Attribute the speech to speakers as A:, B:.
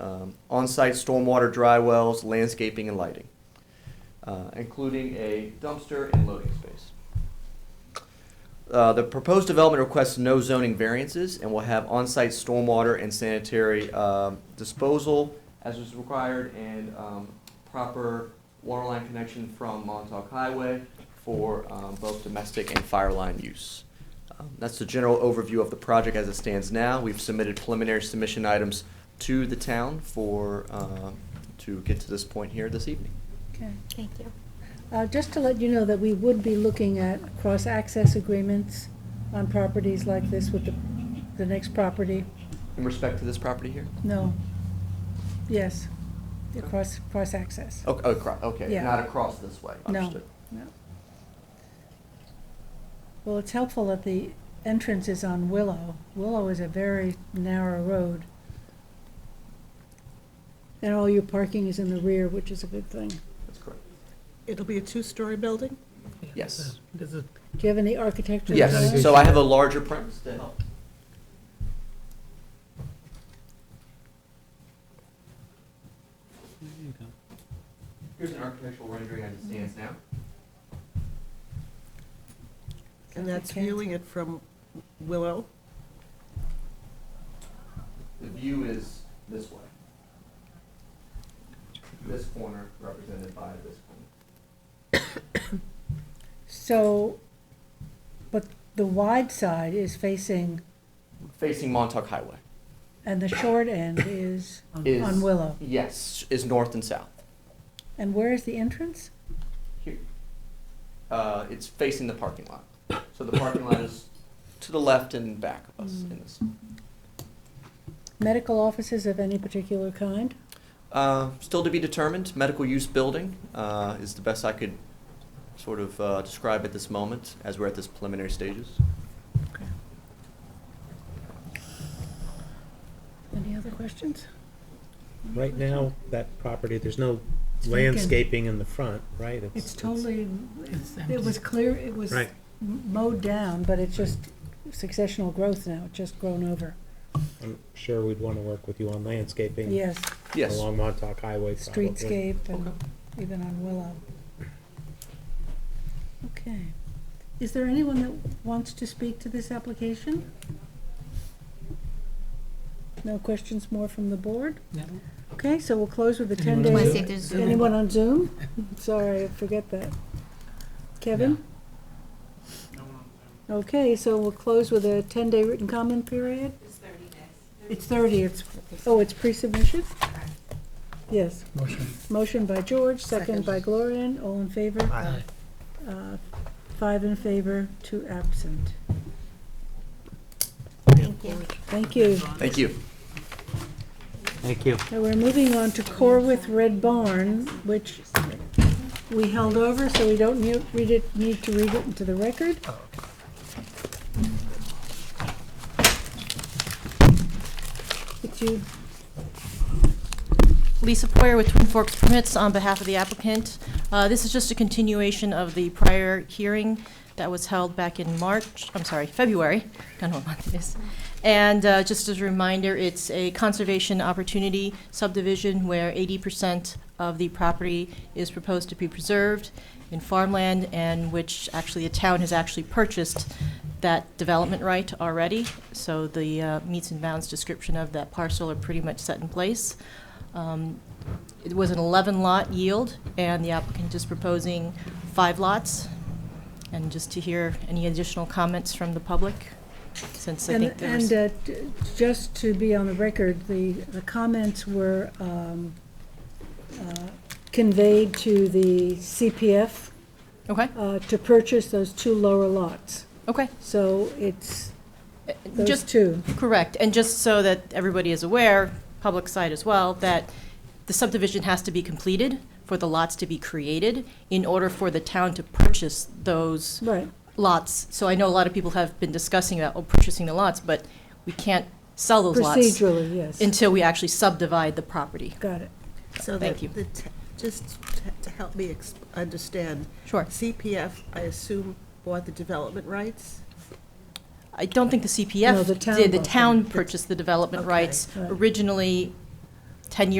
A: um, on-site stormwater dry wells, landscaping and lighting, uh, including a dumpster and loading space. Uh, The proposed development requests no zoning variances and will have on-site stormwater and sanitary um, disposal as is required and um, proper water line connection from Montauk Highway for um, both domestic and fire line use. Um, That's the general overview of the project as it stands now. We've submitted preliminary submission items to the town for, um, to get to this point here this evening.
B: Okay.
C: Thank you.
B: Uh, Just to let you know that we would be looking at cross-access agreements on properties like this with the, the next property.
A: In respect to this property here?
B: No. Yes, the cross, cross-access.
A: Oh, oh, acro- Okay,
B: Yeah.
A: not across this way,
B: No,
A: understood.
B: no. Well, it's helpful that the entrance is on Willow. Willow is a very narrow road. And all your parking is in the rear, which is a good thing.
A: That's correct.
D: It'll be a two-story building?
A: Yes.
E: There's a-
B: Do you have any architectural?
A: Yes,
B: drawings?
A: so I have a larger premise to help. Here's an architectural rendering as it stands now.
D: And that's
B: Okay.
D: viewing it from Willow?
A: The view is this way. This corner represented by this corner.
B: So, but the wide side is facing,
A: Facing Montauk Highway.
B: and the short end is
A: Is-
B: on Willow.
A: Yes, is north and south.
B: And where is the entrance?
A: Here. Uh, it's facing the parking lot. So the parking lot is to the left and back of us in this.
B: Medical offices of any particular kind?
A: Uh, still to be determined, medical use building uh, is the best I could sort of uh, describe at this moment as we're at this preliminary stages.
B: Any other questions?
E: Right now, that property, there's no
B: It's vacant.
E: landscaping in the front, right?
B: It's totally, it was clear, it was
E: Right.
B: mowed down, but it's just successional growth now, it's just grown over.
E: I'm sure we'd want to work with you on landscaping.
B: Yes,
A: Yes.
E: Along Montauk Highway, probably.
B: streetscape and even on Willow. Okay. Is there anyone that wants to speak to this application? No questions more from the board?
F: No.
B: Okay, so we'll close with the ten
F: Anyone on
C: Wanna
F: Zoom?
C: say
B: days.
C: there's Zoom?
B: Anyone on Zoom? Sorry, I forget that. Kevin? Okay, so we'll close with a ten-day written comment period? It's thirty days. It's thirty, it's, oh, it's pre-submission? Yes.
F: Motion.
B: Motion by George, second by Gloria, all in favor?
E: Aye.
B: Uh, Five in favor, two absent.
C: Thank you.
B: Thank you.
A: Thank you.
E: Thank you.
B: Now, we're moving on to Corwith Red Barn, which we held over, so we don't need, read it, need to read it into the record. It's you,
G: Lisa Poyer with Twin Forks Permits on behalf of the applicant. Uh, This is just a continuation of the prior hearing that was held back in March, I'm sorry, February, don't know what month it is. And uh, just as a reminder, it's a conservation opportunity subdivision where 80% of the property is proposed to be preserved in farmland and which actually the town has actually purchased that development right already. So the uh, meets and bounds description of that parcel are pretty much set in place. Um, It was an 11-lot yield, and the applicant is proposing five lots. And just to hear any additional comments from the public, since I
B: And,
G: think there's...
B: and uh, d- just to be on the record, the, the comments were um, uh, conveyed to the CPF
G: Okay,
B: uh, to purchase those two lower lots.
G: okay.
B: So it's
G: Uh,
B: those
G: Just,
B: two.
G: correct, and just so that everybody is aware, public side as well, that the subdivision has to be completed for the lots to be created in order for the town to purchase those
B: Right,
G: lots. So I know a lot of people have been discussing about oh, purchasing the lots, but we can't sell those lots
B: procedurally, yes.
G: until we actually subdivide the property.
B: Got it.
D: So
G: Thank
D: that
G: you.
D: the t- Just t- to help me ex- understand,
G: Sure.
D: CPF, I assume, bought the development rights?
G: I don't think the
B: No, the
G: CPF
B: town
G: did. The
B: bought
G: town
B: them.
G: purchased the development
D: Okay.
G: rights.
B: Right.
G: Originally, 10 years